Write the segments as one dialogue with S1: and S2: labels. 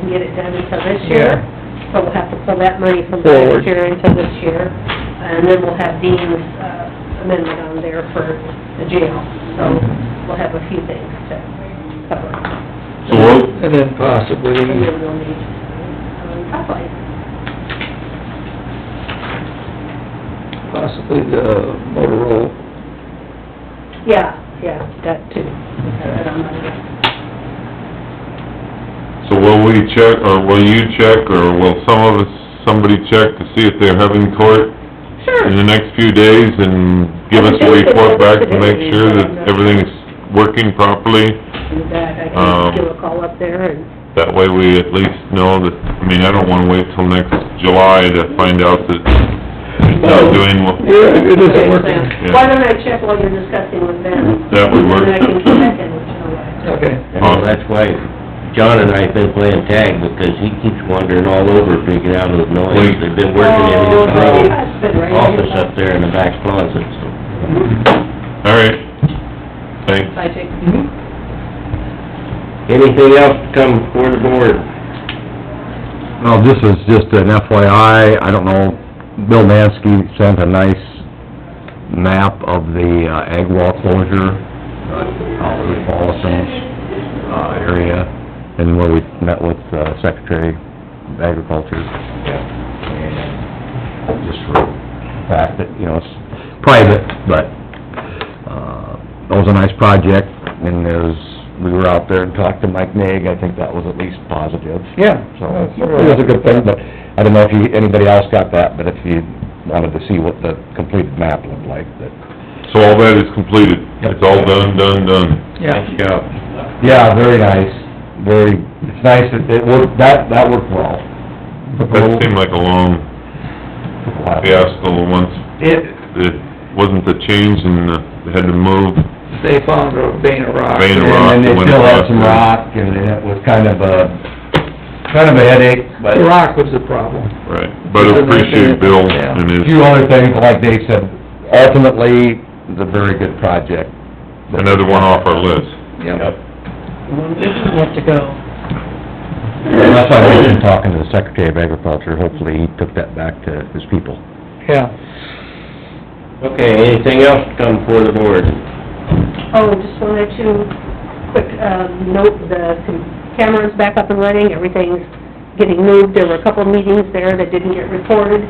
S1: couldn't get it done until this year. So we'll have to pull that money from
S2: Forward.
S1: last year into this year. And then we'll have Dean's uh, amendment on there for the jail. So we'll have a few things to cover.
S3: So we'll,
S2: And then possibly,
S1: And then we'll need, um, probably,
S2: possibly the Motorola.
S1: yeah, yeah, that too. That I'm not gonna-
S3: so will we check, or will you check, or will some of us, somebody check to see if they're having court
S1: Sure.
S3: in the next few days and give us a report back to make sure that everything's working properly?
S1: In fact, I can
S3: Um,
S1: give a call up there and
S3: That way we at least know that, I mean, I don't wanna wait till next July to find out that it's not doing what,
S2: Yeah, it isn't working.
S3: Yeah.
S1: Why don't I check while you're discussing with them?
S3: That would work.
S1: And then I can come back and let you know what.
S2: Okay.
S4: Well, that's why John and I have been playing tag, because he keeps wandering all over, freaking out with noise. They've been working in his
S1: Oh,
S4: little
S1: that's been right.
S4: office up there in the back closet, so.
S3: alright, thanks.
S1: I take,
S4: Anything else to come before the board?
S5: Well, this is just an FYI, I don't know, Bill Mansky sent a nice map of the uh, ag wall closure, uh, out in Paulson's, uh, area, and where we met with uh, Secretary of Agriculture. And Just for the fact that, you know, it's private, but, uh, that was a nice project, and there's, we were out there and talked to Mike Naig, I think that was at least positive.
S2: Yeah,
S5: So,
S2: that's all
S5: it was a
S2: right.
S5: good thing, but I don't know if you, anybody else got that, but if you wanted to see what the completed map looked like, that...
S3: So all that is completed, it's all done, done, done.
S2: Yeah,
S5: Yeah, very nice, very, it's nice that it worked, that, that worked well.
S3: That seemed like a long fiasco once
S2: it,
S3: it wasn't the change and the, they had to move,
S2: they found a vein of rock.
S3: Vein of rock.
S5: And
S3: that
S5: then they
S3: went
S5: still had
S3: across
S5: some
S3: there.
S5: rock, and it was kind of a, kind of a headache, but...
S2: The rock was the problem.
S3: right, but I appreciate Bill
S2: Yeah.
S3: and
S5: A
S3: his,
S5: few other things, like Dave said, ultimately, it's a very good project.
S3: another one off our list.
S2: Yep.
S5: And that's why I've been talking to the Secretary of Agriculture, hopefully he took that back to his people.
S2: Yeah.
S4: Okay, anything else to come before the board?
S1: oh, just wanted to quick, um, note the camera's back up and running, everything's getting moved. There were a couple meetings there that didn't get recorded,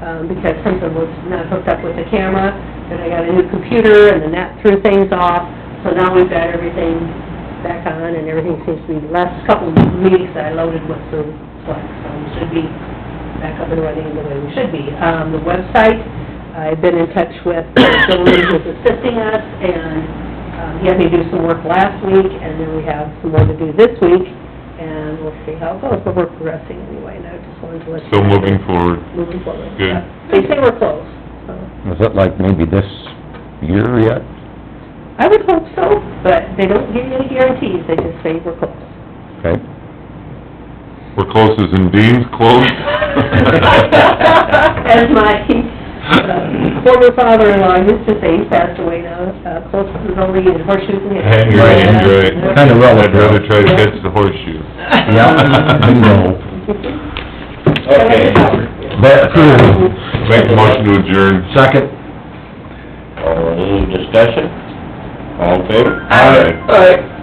S1: um, because something was not hooked up with the camera. Then I got a new computer, and then that threw things off, so now we've got everything back on, and everything seems to be, the last couple meetings I loaded with Zoom, so it should be back up and running the way we should be. Um, the website, I've been in touch with the gentleman who's assisting us, and, um, he had me do some work last week, and then we have some more to do this week, and we'll see how it goes, but we're progressing anyway, and I just wanted to let you...
S3: Still moving forward.
S1: Moving forward.
S3: Good.
S1: Yeah. They say we're close, so,
S5: Is it like maybe this year yet?
S1: I would hope so, but they don't give you any guarantees, they just say we're close.
S5: Okay.
S3: We're close as in Dean's close.
S1: As my uh, former father-in-law used to say, he passed away now, uh, close to the building in horseshoes and hedges.
S3: Hand your hand right.
S5: Kind of
S3: I'd rather
S5: relative.
S3: try to catch the horseshoe.
S5: Yeah, I know.
S4: Okay.
S5: But true.
S3: Make a motion to adjourn.
S5: Second.
S4: Any discussion? All in favor?
S3: Aye.
S2: All right.